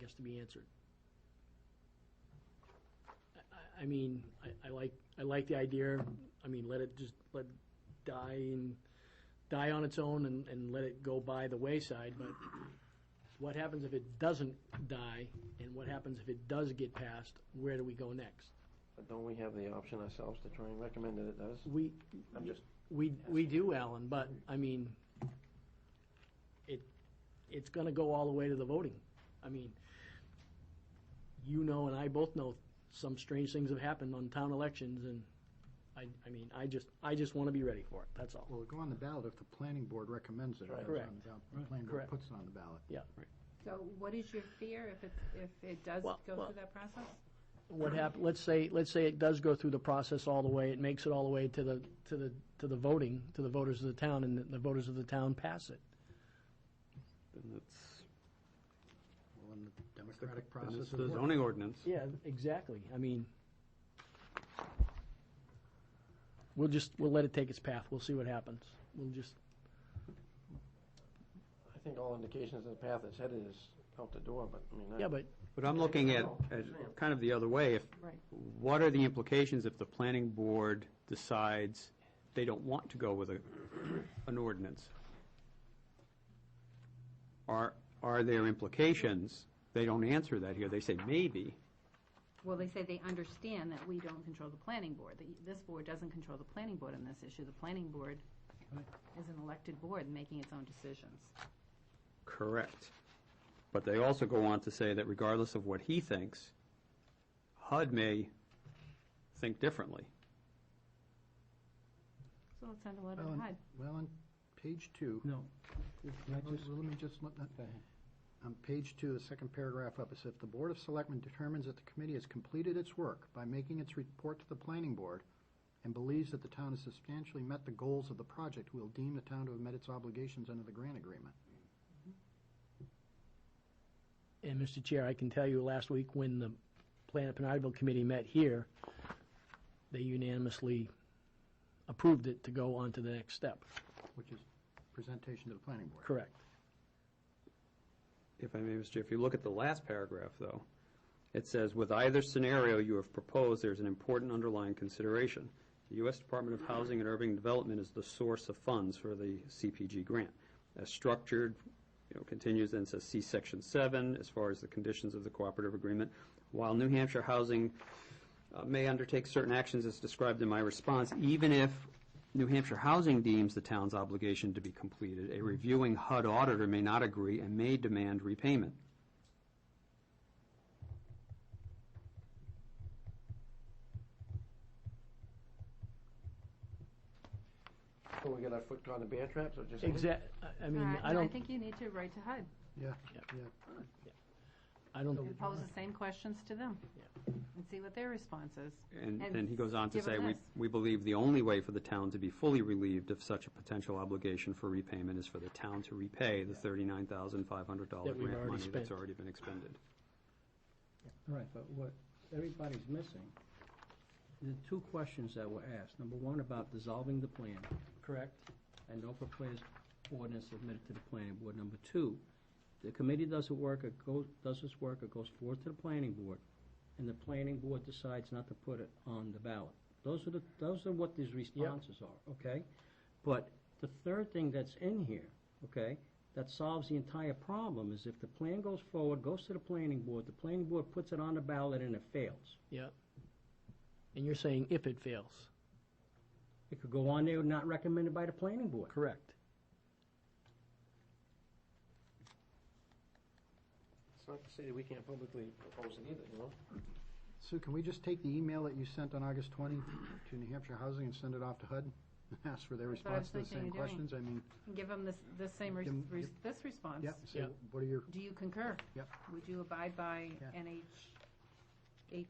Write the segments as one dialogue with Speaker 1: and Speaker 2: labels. Speaker 1: has to be answered. I- I, I mean, I, I like, I like the idea, I mean, let it just, let die and, die on its own and, and let it go by the wayside, but what happens if it doesn't die, and what happens if it does get passed, where do we go next?
Speaker 2: But don't we have the option ourselves to try and recommend that it does?
Speaker 1: We,
Speaker 2: I'm just,
Speaker 1: We, we do, Alan, but, I mean, it, it's gonna go all the way to the voting. I mean, you know and I both know some strange things have happened on town elections, and I, I mean, I just, I just wanna be ready for it, that's all.
Speaker 3: Well, it'll go on the ballot if the planning board recommends it. or
Speaker 2: Right.
Speaker 3: it's on the
Speaker 1: Correct.
Speaker 3: ballot- The planning board
Speaker 1: Correct.
Speaker 3: puts it on the ballot.
Speaker 4: So what is your fear if it's, if it does
Speaker 1: Well,
Speaker 4: go
Speaker 1: well-
Speaker 4: through that process?
Speaker 1: What hap, let's say, let's say it does go through the process all the way, it makes it all the way to the, to the, to the voting, to the voters of the town, and the voters of the town pass it.
Speaker 5: Then it's,
Speaker 3: Well, in the democratic
Speaker 5: then
Speaker 3: process.
Speaker 5: it's
Speaker 3: of
Speaker 5: the
Speaker 3: work.
Speaker 5: zoning ordinance.
Speaker 1: Yeah, exactly, I mean, we'll just, we'll let it take its path, we'll see what happens. We'll just,
Speaker 2: I think all indications of the path it's headed is out the door, but I mean,
Speaker 1: yeah,
Speaker 2: that-
Speaker 1: but
Speaker 5: But I'm looking at, at kind of the other way, if,
Speaker 4: Right.
Speaker 5: what are the implications if the planning board decides they don't want to go with a, an ordinance? Are, are there implications? They don't answer that here, they say maybe.
Speaker 4: Well, they say they understand that we don't control the planning board, that this board doesn't control the planning board on this issue. The planning board is an elected board making its own decisions.
Speaker 5: Correct. But they also go on to say that regardless of what he thinks, HUD may think differently.
Speaker 4: So let's send a letter
Speaker 3: Well,
Speaker 4: to
Speaker 3: and-
Speaker 4: HUD.
Speaker 3: Well, on page two.
Speaker 1: No.
Speaker 3: Well, Let me just, let- let- on page two, the second paragraph up, it says, "If the Board of Selectmen determines that the committee has completed its work by making its report to the planning board and believes that the town has substantially met the goals of the project, will deem the town to have met its obligations under the grant agreement."
Speaker 1: And Mr. Chair, I can tell you, last week when the Planet Penideville Committee met here, they unanimously approved it to go on to the next step.
Speaker 3: Which is presentation to the planning board.
Speaker 1: Correct.
Speaker 5: If I may, Mr. Chair, if you look at the last paragraph, though, it says, "With either scenario you have proposed, there's an important underlying consideration. The U.S. Department of Housing and Urban Development is the source of funds for the CPG grant. As structured, you know, continues and says, see Section 7, as far as the conditions of the cooperative agreement. While New Hampshire Housing uh, may undertake certain actions as described in my response, even if New Hampshire Housing deems the town's obligation to be completed, a reviewing HUD auditor may not agree and may demand repayment.
Speaker 2: so we got our foot caught in a bear trap, so just.
Speaker 1: Exact, I mean,
Speaker 4: Alright,
Speaker 1: I
Speaker 4: no, I
Speaker 1: don't,
Speaker 4: think you need to write to HUD
Speaker 3: Yeah,
Speaker 1: Yeah.
Speaker 3: yeah.
Speaker 1: I don't,
Speaker 4: and pose the same questions to them and see what their response is.
Speaker 5: And
Speaker 4: And
Speaker 5: then he goes on to
Speaker 4: give
Speaker 5: say,
Speaker 4: them
Speaker 5: we,
Speaker 4: this.
Speaker 5: we believe the only way for the town to be fully relieved of such a potential obligation for repayment is for the town to repay the thirty-nine thousand five hundred dollar
Speaker 1: That we've
Speaker 5: grant
Speaker 1: already
Speaker 5: money that's
Speaker 1: spent.
Speaker 5: already been expended.
Speaker 6: Right, but what everybody's missing, the two questions that were asked, number one about dissolving the plan,
Speaker 1: correct?
Speaker 6: and no proposed ordinance submitted to the planning board. Number two, the committee does it work, it goes, does its work, it goes forward to the planning board, and the planning board decides not to put it on the ballot. Those are the, those are what these responses are, okay? But the third thing that's in here, okay, that solves the entire problem is if the plan goes forward, goes to the planning board, the planning board puts it on the ballot and it fails.
Speaker 1: Yeah. And you're saying if it fails?
Speaker 6: It could go on there not recommended by the planning board.
Speaker 1: Correct.
Speaker 2: It's not to say that we can't publicly propose it either, you know?
Speaker 3: Sue, can we just take the email that you sent on August 20 to New Hampshire Housing and send it off to HUD? and Ask for their
Speaker 4: That's what I
Speaker 3: response to the
Speaker 4: was
Speaker 3: same
Speaker 4: thinking of doing.
Speaker 3: questions? I mean,
Speaker 4: And give them this, this same, res-
Speaker 3: Give 'em-
Speaker 4: res- this response.
Speaker 3: yeah, say,
Speaker 1: Yeah.
Speaker 3: what are your,
Speaker 4: Do you concur?
Speaker 3: Yep.
Speaker 4: Would you abide by
Speaker 3: Yeah.
Speaker 4: NH,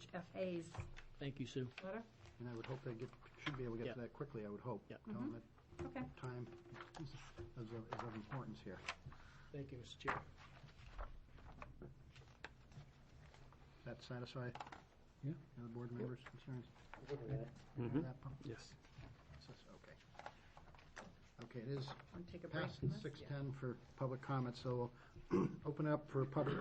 Speaker 4: HFA's
Speaker 1: Thank you, Sue.
Speaker 4: letter?
Speaker 3: and I would hope they get, should be able to
Speaker 1: Yeah.
Speaker 3: get to that quickly, I would hope.
Speaker 1: Yeah.
Speaker 3: Tell
Speaker 4: Mm-hmm.
Speaker 3: them
Speaker 4: Okay.
Speaker 3: that time is of, is of importance here.
Speaker 1: Thank you, Mr. Chair.
Speaker 3: Does that satisfy?
Speaker 6: Yeah.
Speaker 3: The other board members' concerns?
Speaker 2: Good with that.
Speaker 1: Mm-hmm.
Speaker 4: Mm-hmm.
Speaker 5: Mhm.
Speaker 3: That part?
Speaker 5: Yes.
Speaker 3: Says Okay. Okay, it is
Speaker 4: Want to take a break
Speaker 3: past
Speaker 4: from this?
Speaker 3: six ten for public comment, so open up for public